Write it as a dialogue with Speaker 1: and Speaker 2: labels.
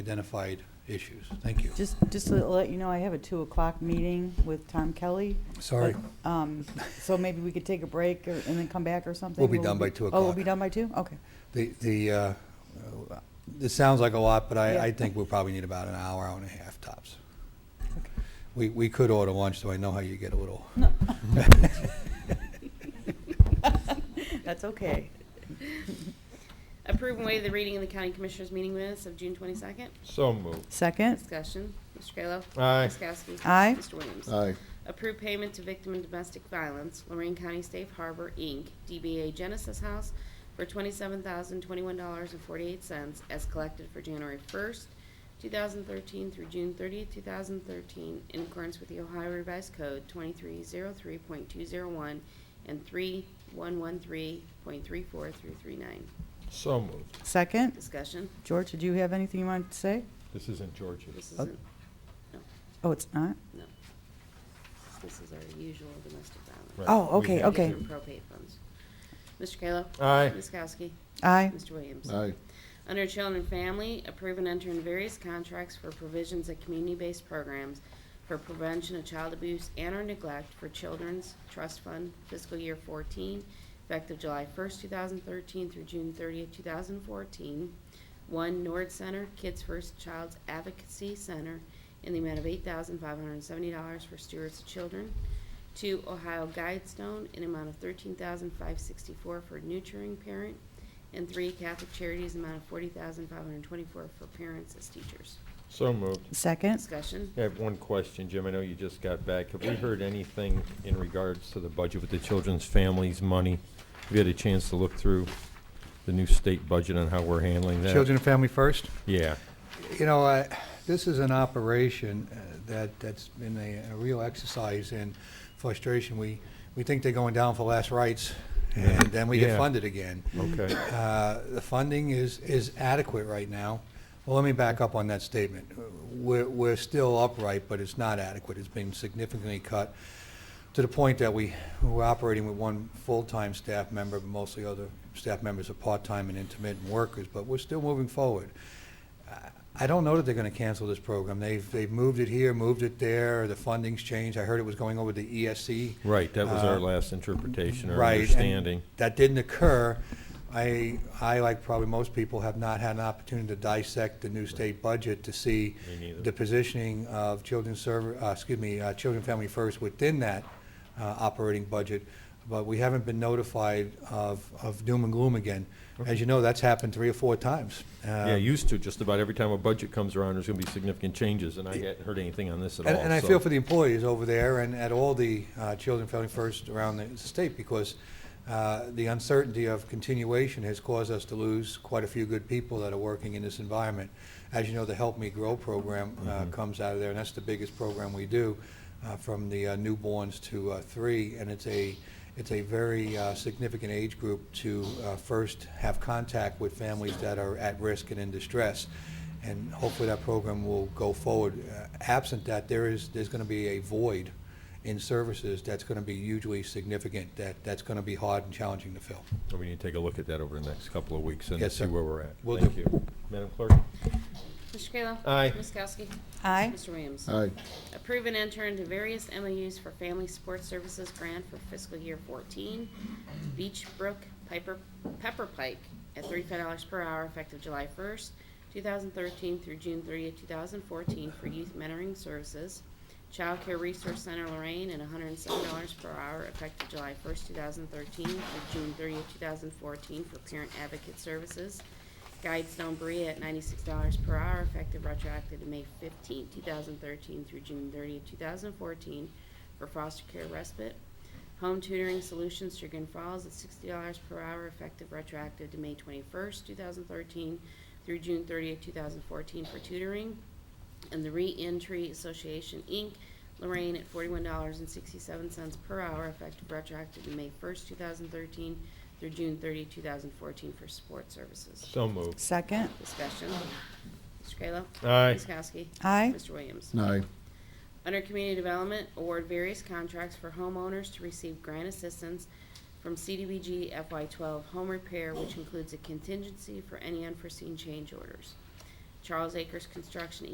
Speaker 1: identified issues. Thank you.
Speaker 2: Just, just to let you know, I have a 2 o'clock meeting with Tom Kelly.
Speaker 1: Sorry.
Speaker 2: but, um, So maybe we could take a break or- and then come back or something?
Speaker 1: We'll be
Speaker 2: Will
Speaker 1: done
Speaker 2: we
Speaker 1: by 2
Speaker 2: Oh, we'll
Speaker 1: o'clock.
Speaker 2: be done by 2? Okay.
Speaker 1: The, the, uh, uh, this sounds like a lot, but I, I
Speaker 2: Yeah.
Speaker 1: think we'll probably need about an hour, hour and a half tops.
Speaker 2: Okay.
Speaker 1: We, we could order lunch, so I know how you get a little.
Speaker 2: No. That's okay.
Speaker 3: Approve and waive the reading in the county commissioners' meeting minutes of June twenty-second.
Speaker 4: So moved.
Speaker 2: Second?
Speaker 3: Discussion, Mr. Kayla.
Speaker 4: Aye.
Speaker 3: Ms. Kowski.
Speaker 2: Aye.
Speaker 3: Mr. Williams.
Speaker 5: Aye.
Speaker 3: Approve payment to victim in domestic violence, Lorraine County Safe Harbor, Inc., DBA Genesis House, for twenty-seven thousand twenty-one dollars and forty-eight cents as collected for January first, two thousand thirteen through June thirtieth, two thousand thirteen, in accordance with the Ohio Revised Code twenty-three zero three point two zero one and three one one three point three four through three nine.
Speaker 4: So moved.
Speaker 2: Second?
Speaker 3: Discussion,
Speaker 2: George, did you have anything you wanted to say?
Speaker 4: This isn't George's.
Speaker 3: this isn't,
Speaker 2: Oh, it's not?
Speaker 3: no. This is our usual domestic violence.
Speaker 4: Right.
Speaker 2: Oh,
Speaker 4: We
Speaker 2: okay,
Speaker 4: have
Speaker 2: okay.
Speaker 3: These are Propane funds. Mr. Kayla.
Speaker 4: Aye.
Speaker 3: Ms. Kowski.
Speaker 2: Aye.
Speaker 3: Mr. Williams.
Speaker 5: Aye.
Speaker 3: Under Children and Family, approve and enter in various contracts for provisions of community-based programs for prevention of child abuse and or neglect for Children's Trust Fund fiscal year 14, effective July 1st, 2013 through June 30th, 2014. One Nord Center Kids First Child's Advocacy Center in the amount of $8,570 for stewards of children. Two Ohio Guidestone in amount of $13,564 for nurturing parent. And three, Catholic Charities, amount of forty thousand five hundred twenty-four for parents as teachers.
Speaker 4: So moved.
Speaker 2: Second?
Speaker 3: Discussion?
Speaker 4: I have one question, Jim. I know you just got back. Have we heard anything in regards to the budget with the children's families' money? Have you had a chance to look through the new state budget and how we're handling that?
Speaker 1: Children and family first?
Speaker 4: Yeah.
Speaker 1: You know, I- this is an operation uh, that, that's been a a real exercise in frustration. We, we think they're going down for last rites, and then we get
Speaker 4: Yeah.
Speaker 1: funded again.
Speaker 4: Okay.
Speaker 1: Uh, The funding is, is adequate right now. Well, let me back up on that statement. We're, we're still upright, but it's not adequate. It's been significantly cut to the point that we, we're operating with one full-time staff member, but mostly other staff members are part-time and intermittent workers, but we're still moving forward. I- I don't know that they're going to cancel this program. They've, they've moved it here, moved it there, the funding's changed. I heard it was going over to E ESC.
Speaker 4: Right, that was our
Speaker 1: Uh,
Speaker 4: last interpretation or
Speaker 1: Right, and
Speaker 4: understanding.
Speaker 1: That didn't occur. I, I, like probably most people, have not had an opportunity to dissect the new state budget to see
Speaker 4: Me neither.
Speaker 1: the positioning of children's serv, uh, excuse me, uh, children, family first within that, uh, operating budget. But we haven't been notified of, of doom and gloom again. As you know, that's happened three or four times. Uh,
Speaker 4: Yeah, used to, just about every time a budget comes around, there's gonna be significant changes, and I hadn't heard anything on this at all.
Speaker 1: And, and I
Speaker 4: so-
Speaker 1: feel for the employees over there and at all the uh, Children Family First around the state because uh, the uncertainty of continuation has caused us to lose quite a few good people that are working in this environment. As you know, the Help Me Grow program uh,
Speaker 4: Mm-hmm.
Speaker 1: comes out of there, and that's the biggest program we do, uh, from the uh, newborns to uh, three, and it's a, it's a very uh, significant age group to uh, first have contact with families that are at risk and in distress and hopefully that program will go forward. Uh, Absent that, there is, there's going to be a void in services that's going to be hugely significant, that, that's going to be hard and challenging to fill.
Speaker 4: We need to take a look at that over the next couple of weeks and
Speaker 1: Yes,
Speaker 4: see
Speaker 1: sir.
Speaker 4: where we're at.
Speaker 1: Will
Speaker 4: Thank
Speaker 1: do.
Speaker 4: you. Madam Clerk?
Speaker 3: Mr. Kayla.
Speaker 4: Aye.
Speaker 3: Ms. Kowski.
Speaker 2: Aye.
Speaker 3: Mr. Williams.
Speaker 5: Aye.
Speaker 3: Approve and enter into various MOUs for Family Support Services Grant for fiscal year fourteen. Beach Brook Piper, Pepper Pike at thirty-five dollars per hour effective July first, two thousand thirteen through June thirtieth, two thousand fourteen for youth mentoring services. Child Care Resource Center Lorraine at hundred and seven dollars per hour effective July first, two thousand thirteen through June thirtieth, two thousand fourteen for parent advocate services. Guidestone Berea at ninety-six dollars per hour, effective retroactive to May fifteenth, two thousand thirteen through June thirtieth, two thousand fourteen, for foster care respite. Home Tutoring Solutions, Sugar Falls at sixty dollars per hour, effective retroactive to May twenty-first, two thousand thirteen through June thirtieth, two thousand fourteen, for tutoring. And the Reentry Association, Inc., Lorraine at forty-one dollars and sixty-seven cents per hour, effective retroactive to May first, two thousand thirteen through June thirtieth, two thousand fourteen, for support services.
Speaker 4: So moved.
Speaker 2: Second?
Speaker 3: Discussion. Mr. Kayla.
Speaker 4: Aye.
Speaker 3: Ms. Kowski.
Speaker 2: Aye.
Speaker 3: Mr. Williams.
Speaker 5: Aye.
Speaker 3: Under Community Development, award various contracts for homeowners to receive grant assistance from CDBG FY12 home repair, which includes a contingency for any unforeseen change orders. Charles Acres Construction,